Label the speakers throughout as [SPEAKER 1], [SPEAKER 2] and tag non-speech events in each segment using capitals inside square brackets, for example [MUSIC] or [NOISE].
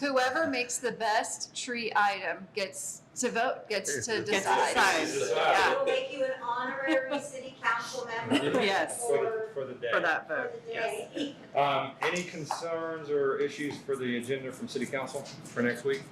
[SPEAKER 1] whoever makes the best tree item gets to vote, gets to
[SPEAKER 2] Gets
[SPEAKER 1] decide.
[SPEAKER 2] decide.
[SPEAKER 3] I
[SPEAKER 2] Yeah.
[SPEAKER 3] will make you an honorary city council member.
[SPEAKER 2] Yes.
[SPEAKER 3] For
[SPEAKER 4] For the
[SPEAKER 2] for
[SPEAKER 4] day.
[SPEAKER 2] that
[SPEAKER 3] for
[SPEAKER 2] vote,
[SPEAKER 3] the
[SPEAKER 2] yes.
[SPEAKER 3] day.
[SPEAKER 4] Um, any concerns or issues for the agenda from city council for next week?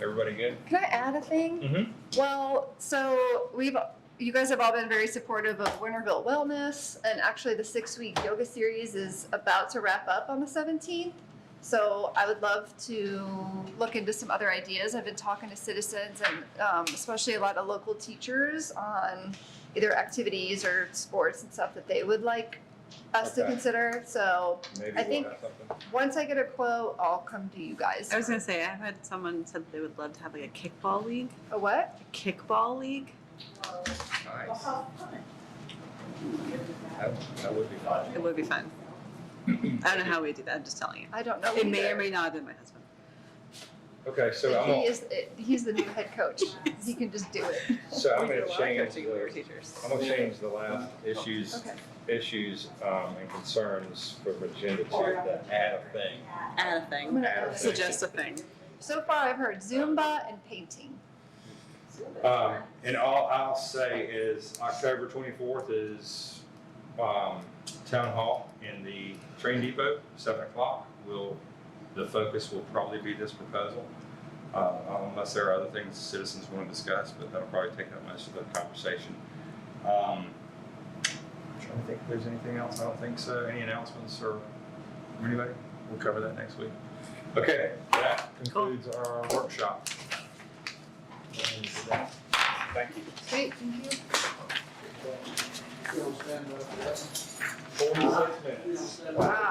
[SPEAKER 4] Everybody good?
[SPEAKER 1] Can I add a thing?
[SPEAKER 4] Mhm.
[SPEAKER 1] Well, so we've you guys have all been very supportive of Winterville Wellness, and actually the six week yoga series is about to wrap up on the 17th. So I would love to look into some other ideas. I've been talking to citizens and um, especially a lot of local teachers on either activities or sports and stuff that they would like us to
[SPEAKER 4] Okay.
[SPEAKER 1] consider. So
[SPEAKER 4] Maybe
[SPEAKER 1] I
[SPEAKER 4] we'll
[SPEAKER 1] think-
[SPEAKER 4] have something.
[SPEAKER 1] once I get a quote, I'll come to you guys.
[SPEAKER 2] I was gonna say, I had someone said they would love to have like a kickball league,
[SPEAKER 1] a what?
[SPEAKER 2] a kickball league.
[SPEAKER 3] Well, well,
[SPEAKER 4] Nice.
[SPEAKER 3] how [LAUGHS] fun.
[SPEAKER 4] That, that would be fun.
[SPEAKER 2] It would be fun. I don't know how we do that, I'm just telling you.
[SPEAKER 1] I don't know.
[SPEAKER 2] It may
[SPEAKER 1] either.
[SPEAKER 2] or may not have been my husband.
[SPEAKER 4] Okay, so I'm
[SPEAKER 1] he
[SPEAKER 4] gonna,
[SPEAKER 1] is he's the new head
[SPEAKER 4] [LAUGHS]
[SPEAKER 1] coach. he can just do it.
[SPEAKER 4] so I'm
[SPEAKER 2] We did
[SPEAKER 4] gonna
[SPEAKER 2] a lot of
[SPEAKER 4] change
[SPEAKER 2] coaching when we were
[SPEAKER 4] the,
[SPEAKER 2] teachers.
[SPEAKER 4] I'm gonna change the last issues,
[SPEAKER 1] Okay.
[SPEAKER 4] issues, um, and concerns from agenda to the add a thing.
[SPEAKER 2] Add a
[SPEAKER 1] I'm
[SPEAKER 2] thing,
[SPEAKER 1] gonna
[SPEAKER 4] Add a thing.
[SPEAKER 2] suggest a thing.
[SPEAKER 1] So far, I've heard Zumba and painting.
[SPEAKER 4] Um, and all I'll say is October twenty-fourth is, um, town hall in the train depot, seven o'clock. Will, the focus will probably be this proposal, uh, unless there are other things citizens want to discuss, but that'll probably take up most of the conversation. Um, I'm trying to think if there's anything else. I don't think so. Any announcements or anybody? We'll cover that next week. Okay, that concludes our workshop. And that- Thank you.
[SPEAKER 1] Great, thank you.
[SPEAKER 5] You'll stand up, yes.
[SPEAKER 4] Forty-six minutes.
[SPEAKER 5] You'll stand up.